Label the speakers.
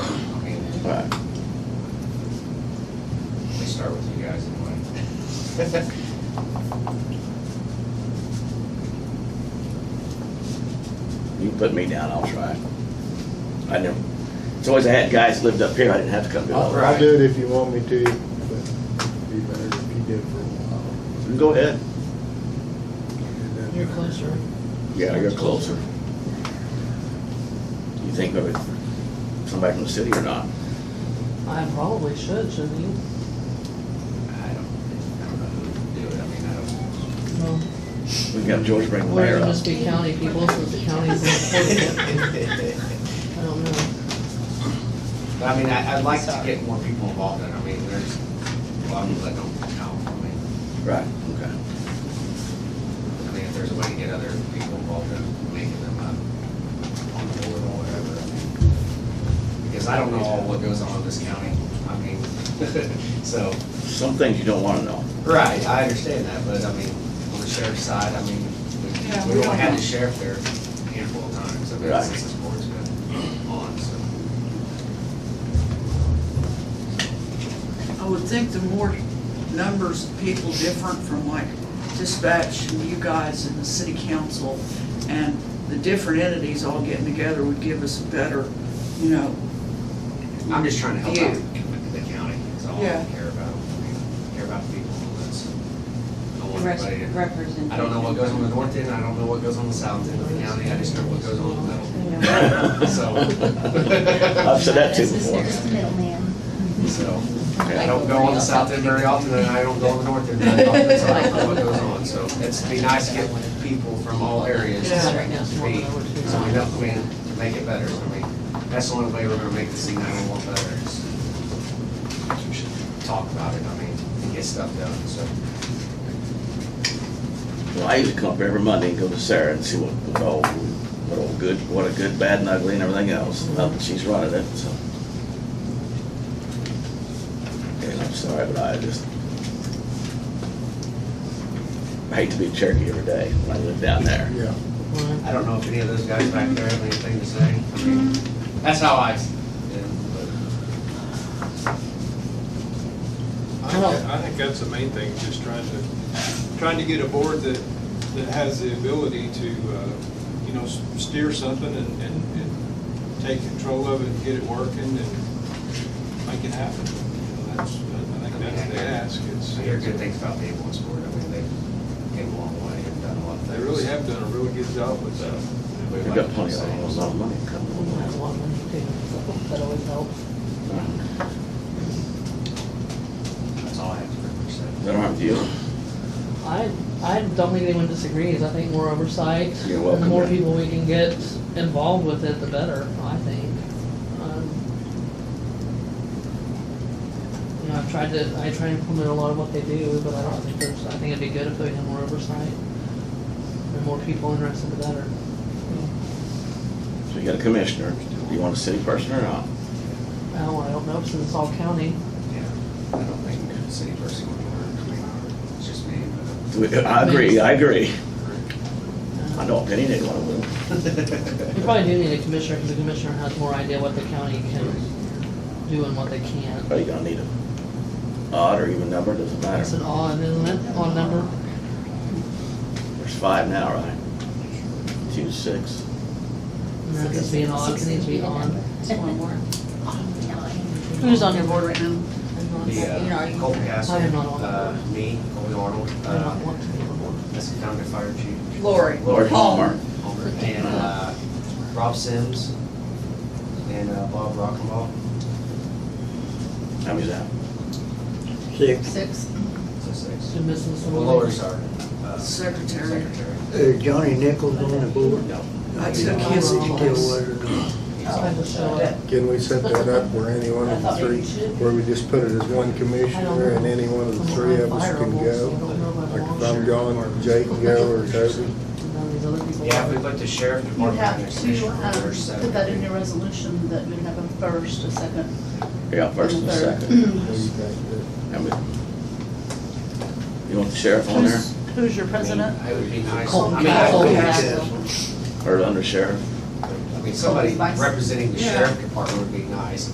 Speaker 1: You can put me down, I'll try. I never, it's always I had guys lived up here, I didn't have to come to
Speaker 2: I'll,
Speaker 1: Elk.
Speaker 2: I'll do it if you want me to, but it'd be better if you did for a while.
Speaker 1: Go ahead.
Speaker 2: And
Speaker 3: You're
Speaker 2: then-
Speaker 3: closer.
Speaker 1: Yeah, you're closer. You think of it, somebody from the city or not?
Speaker 3: I probably should, shouldn't you?
Speaker 4: I don't, I don't know who would do it, I mean, I don't.
Speaker 3: No.
Speaker 1: We can have George bring the
Speaker 3: Or
Speaker 1: mayor
Speaker 3: it'll
Speaker 1: up.
Speaker 3: just be county people, since the county's important. I don't know.
Speaker 4: But I mean, I, I'd like to get more people involved in it, I mean, there's a lot of people that don't count, I mean,
Speaker 1: Right, okay.
Speaker 4: I mean, if there's a way to get other people involved in making them up on the board or whatever, I mean, because I don't know all what goes on in this county, I mean, so.
Speaker 1: Some things you don't wanna know.
Speaker 4: Right, I understand that, but I mean, on the sheriff's side, I mean,
Speaker 5: Yeah,
Speaker 4: we-
Speaker 5: we
Speaker 4: we
Speaker 5: don't
Speaker 4: only had
Speaker 5: know.
Speaker 4: the sheriff there a handful of times, I mean,
Speaker 1: Right.
Speaker 4: since this board's been on, so.
Speaker 5: I would think the more numbers of people different from like dispatch and you guys and the city council and the different entities all getting together would give us a better, you know,
Speaker 4: I'm just trying to help out
Speaker 5: You.
Speaker 4: the county, that's all I
Speaker 5: Yeah.
Speaker 4: care about, I mean, care about the people, that's. I want everybody to-
Speaker 6: Representation.
Speaker 4: I don't know what goes on the north end, I don't know what goes on the south end of the county, I just know what goes on in the middle. So,
Speaker 1: I've said that too before.
Speaker 7: There's the middleman.
Speaker 4: so, I don't go on the south end very often, and I don't go on the north end very often, so I don't know what goes on, so it's be nice to get people from all areas to
Speaker 3: Yeah.
Speaker 4: speak, so we know, I mean, to make it better, so I mean, that's the only way we're gonna make the C nine one one better is we should talk about it, I mean, and get stuff done, so.
Speaker 1: Well, I used to come up every Monday and go to Sarah and see what, what all, what all good, what a good, bad and ugly and everything else. Well, she's running it, so. And I'm sorry, but I just, I hate to be Cherokee every day when I live down there.
Speaker 2: Yeah.
Speaker 4: I don't know if any of those guys back there have anything to say. I mean, That's how I, s- yeah, but
Speaker 8: I think, I think that's the main thing, just trying to, trying to get a board that, that has the ability to, uh, you know, s- steer something and, and, and take control of it and get it working and make it happen. You know, That's, I think that's the ask, it's,
Speaker 4: I hear good things about the ambulance board. I mean, they've came a long way and done a lot of things.
Speaker 8: they really have done a really good job with that.
Speaker 4: We'd
Speaker 1: They've
Speaker 4: like
Speaker 1: got
Speaker 4: to
Speaker 1: plenty of,
Speaker 4: say-
Speaker 1: a lot of money coming
Speaker 3: We might have a lot of money too. That always helps.
Speaker 4: That's all I have to pretty
Speaker 1: Is
Speaker 4: much
Speaker 1: that all right with you?
Speaker 3: I, I don't think anyone disagrees. I think more oversight.
Speaker 1: You're welcome,
Speaker 3: And the more
Speaker 1: yeah.
Speaker 3: people we can get involved with it, the better, I think. Um, You know, I've tried to, I try to implement a lot of what they do, but I don't think there's, I think it'd be good if we had more oversight. The more people interested, the better.
Speaker 1: So you got a commissioner. Do you want a city person or not?
Speaker 3: Now, I don't know, since it's all county,
Speaker 4: say. Yeah, I don't think the city person would work. I mean, it's just me, but. uh,
Speaker 1: We- I agree, I agree. I don't opinion anyone will.
Speaker 3: you probably do need a commissioner, because the commissioner has more idea what the county can do and what they can't.
Speaker 1: Are you gonna need a odd or even number? Doesn't matter.
Speaker 3: It's an odd, isn't it? Odd number.
Speaker 1: There's five now, right? Two, six.
Speaker 3: No, it needs to be an odd, it needs to be on.
Speaker 6: Who's on your board right now?
Speaker 4: The, uh, Colby Hassel,
Speaker 3: I am not on.
Speaker 4: uh, me, Colby Arnold,
Speaker 3: I don't
Speaker 4: uh,
Speaker 3: want to be on board.
Speaker 4: that's the county fire chief.
Speaker 5: Lori.
Speaker 1: Lord Palmer.
Speaker 4: Homer, and, uh, Rob Sims, and, uh, Bob Rockenbaugh.
Speaker 1: How many's that?
Speaker 6: Six.
Speaker 4: So six.
Speaker 3: You're missing
Speaker 4: Well,
Speaker 3: someone.
Speaker 4: Lori's our, uh,
Speaker 5: secretary.
Speaker 4: secretary.
Speaker 2: Uh, Johnny Nichols on the board?
Speaker 1: No.
Speaker 5: I took
Speaker 2: He
Speaker 5: his
Speaker 2: still
Speaker 5: place.
Speaker 2: was or not?
Speaker 3: I have to show it.
Speaker 2: Can we set that up where any one of the three, where we just put it as one commissioner and any one of the three of us can go? Like if I'm gone, Jake can go or Toby?
Speaker 3: None of these other people.
Speaker 4: Yeah, if we put the sheriff
Speaker 6: You
Speaker 4: department in
Speaker 6: have
Speaker 4: there,
Speaker 6: to um,
Speaker 4: there's seven.
Speaker 6: put that in your resolution, that we have a first, a second,
Speaker 1: Yeah, first and
Speaker 6: and a third.
Speaker 1: second.
Speaker 2: What do you think?
Speaker 1: How many? You want the sheriff on there
Speaker 6: Who's- Who's your president?
Speaker 4: It would be nice,
Speaker 3: Colton
Speaker 4: I mean, I
Speaker 3: Castle.
Speaker 4: would
Speaker 1: or under sheriff?
Speaker 4: I mean, somebody
Speaker 6: Colton's vice.
Speaker 4: representing the
Speaker 5: Yeah.
Speaker 4: sheriff department would be nice,